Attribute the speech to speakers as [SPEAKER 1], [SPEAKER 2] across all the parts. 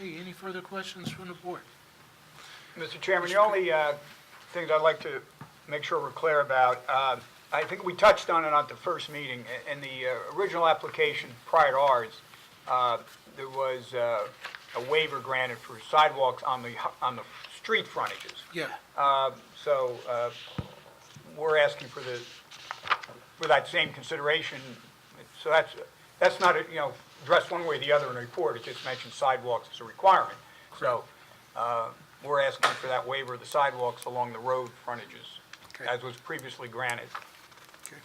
[SPEAKER 1] Okay, any further questions from the board?
[SPEAKER 2] Mr. Chairman, the only uh, things I'd like to make sure we're clear about, uh, I think we touched on it at the first meeting. I- In the uh, original application prior to ours, uh, there was uh, a waiver granted for sidewalks on the, hu- on the street frontages.
[SPEAKER 1] Yeah,
[SPEAKER 2] Uh, So uh, we're asking for the, for that same consideration. So that's, that's not, you know, addressed one way or the other in the report, it just mentions sidewalks as a requirement. So uh, we're asking for that waiver of the sidewalks along the road frontages,
[SPEAKER 1] Okay.
[SPEAKER 2] as was previously granted.
[SPEAKER 1] okay.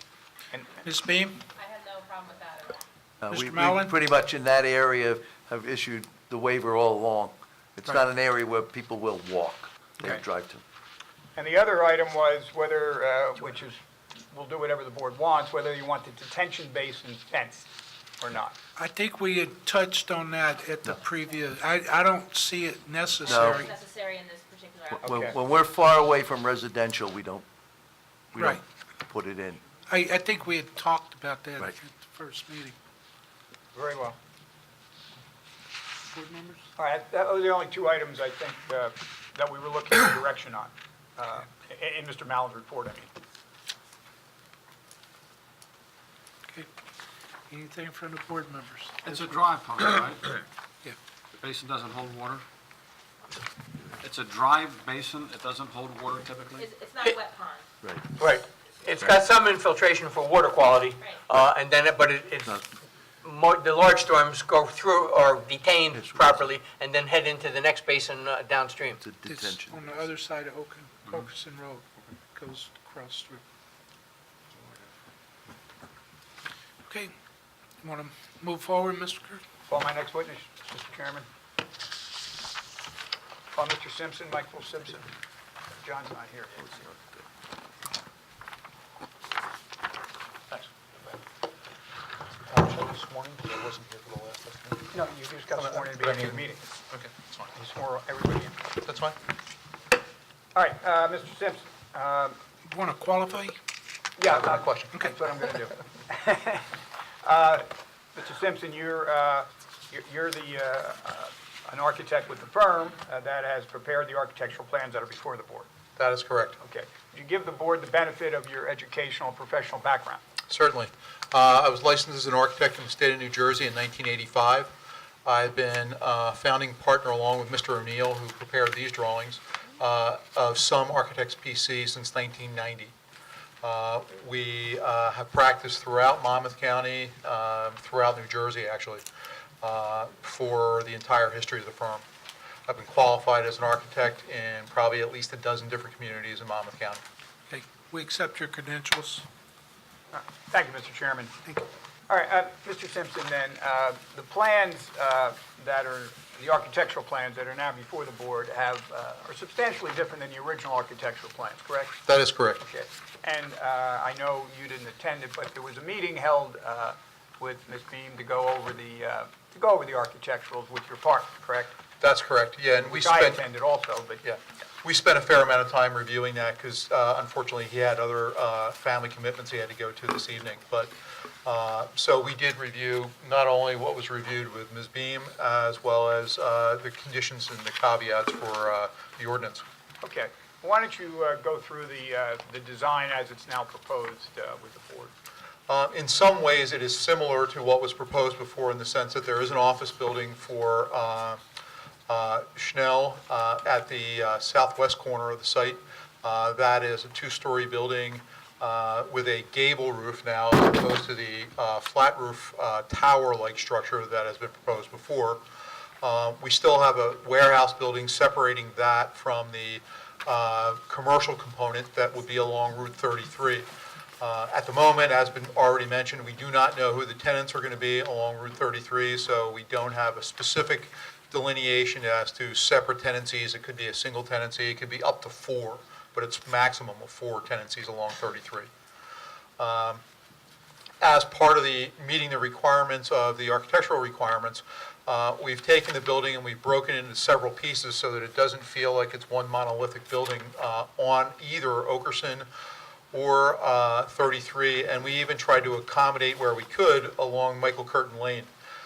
[SPEAKER 2] And
[SPEAKER 1] Ms. Beam?
[SPEAKER 3] I have no problem with that at all.
[SPEAKER 4] Uh,
[SPEAKER 1] Mr.
[SPEAKER 4] we- we
[SPEAKER 1] Mallon?
[SPEAKER 4] Pretty much in that area have issued the waiver all along. It's not an area where people will walk, they
[SPEAKER 1] Okay.
[SPEAKER 4] drive to.
[SPEAKER 2] And the other item was whether, uh, which is, we'll do whatever the board wants, whether you want the detention basin fenced or not.
[SPEAKER 1] I think we had touched on that at the previous, I, I don't see it necessary.
[SPEAKER 3] It's necessary in this particular
[SPEAKER 4] When-
[SPEAKER 3] application.
[SPEAKER 4] When,
[SPEAKER 2] Okay.
[SPEAKER 4] when we're far away from residential, we don't, we don't put it in.
[SPEAKER 1] I, I think we had talked about that at
[SPEAKER 4] Right.
[SPEAKER 1] the first meeting.
[SPEAKER 2] Very well.
[SPEAKER 1] Board members?
[SPEAKER 2] All right, that was the only two items, I think, uh, that we were looking for direction on, uh, in- in Mr. Mallon's report, I mean.
[SPEAKER 1] Okay. Anything from the board members?
[SPEAKER 5] It's a dry pump, right?
[SPEAKER 1] Yeah.
[SPEAKER 5] The basin doesn't hold water? It's a dry basin, it doesn't hold water typically?
[SPEAKER 3] It's, it's not a wet pond.
[SPEAKER 6] Right. It's got some infiltration for water quality, uh, and then, it- but it- it's, mo- the large storms go through or detained properly and then head into the next basin uh, downstream.
[SPEAKER 4] It's a
[SPEAKER 1] It's
[SPEAKER 4] detention.
[SPEAKER 1] on the other side of Oaken, Oakeson Road, goes across through. Okay, want to move forward, Mr. Kirk?
[SPEAKER 2] Call my next witness, Mr. Chairman. Call Mr. Simpson, Michael Simpson. John's not here.
[SPEAKER 7] Oh,
[SPEAKER 2] Thanks.
[SPEAKER 7] Can I be sworn in, Uh, 'Cause I wasn't here for the last estimate?
[SPEAKER 2] No, you just got sworn in beginning of the meeting.
[SPEAKER 7] Okay, that's fine.
[SPEAKER 2] You swore everybody in.
[SPEAKER 7] That's fine.
[SPEAKER 2] All right, uh, Mr. Simpson, um,
[SPEAKER 1] Want to qualify?
[SPEAKER 2] Yeah, not a question. That's what I'm going to do. Uh, Mr. Simpson, you're, uh, you're- you're the, uh, uh, an architect with the firm uh, that has prepared the architectural plans that are before the board.
[SPEAKER 7] That is correct.
[SPEAKER 2] Okay. Would you give the board the benefit of your educational and professional background?
[SPEAKER 7] Certainly. Uh, I was licensed as an architect in the state of New Jersey in 1985. I've been a founding partner along with Mr. O'Neill, who prepared these drawings, uh, of some Architects PC since 1990. Uh, We uh, have practiced throughout Monmouth County, um, throughout New Jersey, actually, uh, for the entire history of the firm. I've been qualified as an architect in probably at least a dozen different communities in Monmouth County.
[SPEAKER 1] Okay, we accept your credentials.
[SPEAKER 2] Uh, Thank you, Mr. Chairman.
[SPEAKER 1] Thank you.
[SPEAKER 2] All right, uh, Mr. Simpson, then, uh, the plans uh, that are, the architectural plans that are now before the board have, uh, are substantially different than the original architectural plans, correct?
[SPEAKER 7] That is correct.
[SPEAKER 2] Okay, and uh, I know you didn't attend it, but there was a meeting held uh, with Ms. Beam to go over the, uh, to go over the architecturals with your partner, correct?
[SPEAKER 7] That's correct, yeah, and we
[SPEAKER 2] Which I
[SPEAKER 7] spent,
[SPEAKER 2] attended also, but
[SPEAKER 7] yeah, we spent a fair amount of time reviewing that, because unfortunately, he had other uh, family commitments he had to go to this evening, but, uh, so we did review not only what was reviewed with Ms. Beam, as well as uh, the conditions and the caveats for uh, the ordinance.
[SPEAKER 2] Okay, why don't you uh, go through the, uh, the design as it's now proposed uh, with the board?
[SPEAKER 7] Uh, In some ways, it is similar to what was proposed before in the sense that there is an office building for uh, uh, Schnell uh, at the uh, southwest corner of the site. Uh, That is a two-story building uh, with a gable roof now as opposed to the uh, flat roof uh, tower-like structure that has been proposed before. Uh, We still have a warehouse building separating that from the uh, commercial component that would be along Route 33. Uh, At the moment, as been already mentioned, we do not know who the tenants are going to be along Route 33, so we don't have a specific delineation as to separate tenancies. It could be a single tenancy, it could be up to four, but it's maximum of four tenancies along 33 as part of the, meeting the requirements of the architectural requirements, uh, we've taken the building and we've broken it into several pieces so that it doesn't feel like it's one monolithic building uh, on either Okerson or uh, 33, and we even tried to accommodate where we could along Michael Curtin Lane.